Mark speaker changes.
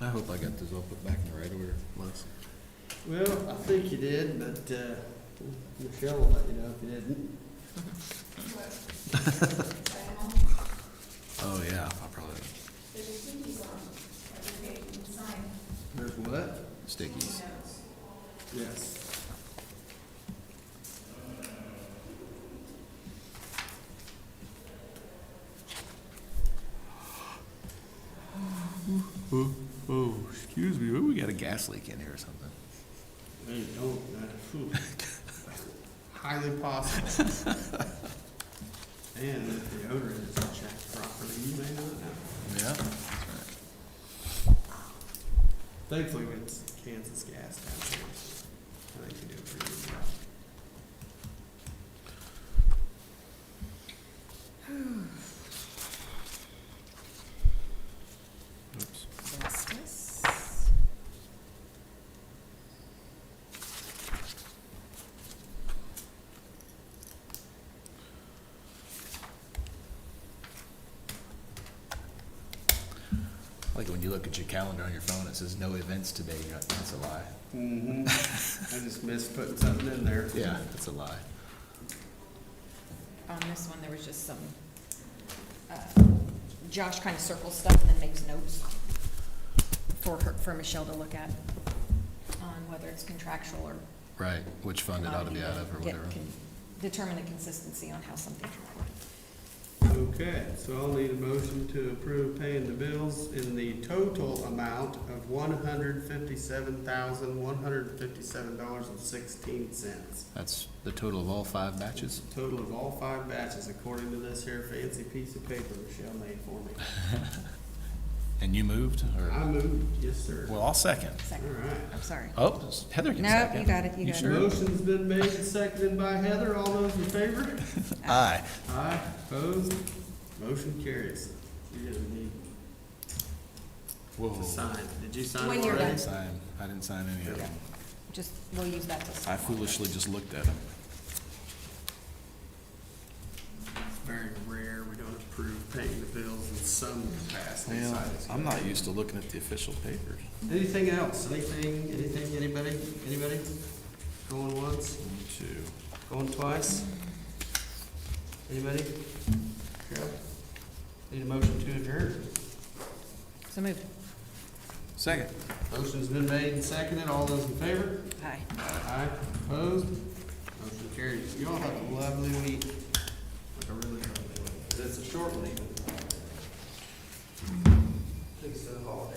Speaker 1: I hope I got this all put back in the right order, Melissa.
Speaker 2: Well, I think you did, but, uh, Michelle will let you know if you didn't.
Speaker 1: Oh, yeah, I probably,
Speaker 2: There's what?
Speaker 1: stickies.
Speaker 2: Yes.
Speaker 1: Oh, oh, excuse me, maybe we got a gas leak in here or something.
Speaker 2: No, you don't, uh, phew. Highly possible. And if the odor is not checked properly, you may not know.
Speaker 1: Yeah.
Speaker 2: Thankfully, it's Kansas gas down here. I think they do a pretty good job.
Speaker 1: Oops.
Speaker 3: Justice.
Speaker 1: Like when you look at your calendar on your phone, it says no events today, you're like, that's a lie.
Speaker 2: Mm-hmm. I just missed putting something in there.
Speaker 1: Yeah, that's a lie.
Speaker 3: On this one, there was just some, uh, Josh kind of circles stuff and then makes notes for her, for Michelle to look at on whether it's contractual or.
Speaker 1: Right, which fund it ought to be out of or
Speaker 3: Get-
Speaker 1: whatever.
Speaker 3: can Determine the consistency on how something's reported.
Speaker 2: Okay, so I'll need a motion to approve paying the bills in the total amount of one hundred fifty-seven thousand, one hundred fifty-seven dollars and sixteen cents.
Speaker 1: That's the total of all five batches?
Speaker 2: Total of all five batches according to this here fancy piece of paper Michelle made for me.
Speaker 1: And you moved,
Speaker 2: I
Speaker 1: or?
Speaker 2: moved, yes, sir.
Speaker 1: Well, I'll second.
Speaker 2: All
Speaker 3: Second,
Speaker 2: right.
Speaker 3: I'm sorry.
Speaker 1: Oh, Heather can
Speaker 3: No,
Speaker 1: second.
Speaker 3: you got it, you got it.
Speaker 1: sure?
Speaker 2: Motion's been made and seconded by Heather. All those in favor?
Speaker 1: Aye.
Speaker 2: Aye, opposed, motion carries. You're gonna need
Speaker 1: Whoa.
Speaker 2: to sign. Did you sign
Speaker 3: When
Speaker 2: already?
Speaker 3: you're
Speaker 1: I
Speaker 3: done.
Speaker 1: didn't sign, I didn't sign any of them.
Speaker 3: Just, we'll use that to.
Speaker 1: I foolishly just looked at them.
Speaker 2: It's very rare, we don't approve paying the bills in some capacity. besides-
Speaker 1: not used to looking at the official papers.
Speaker 2: Anything else, anything, anything, anybody, anybody? Going once,
Speaker 1: One, two.
Speaker 2: going twice? Anybody? Carol? Need a motion to adjourn?
Speaker 3: So moved.
Speaker 1: Second.
Speaker 2: Motion's been made and seconded, all those in favor?
Speaker 3: Aye.
Speaker 2: Aye, opposed? Motion carries. You all have a lovely week. Like a really lovely week. It's a short one even. Takes a holiday.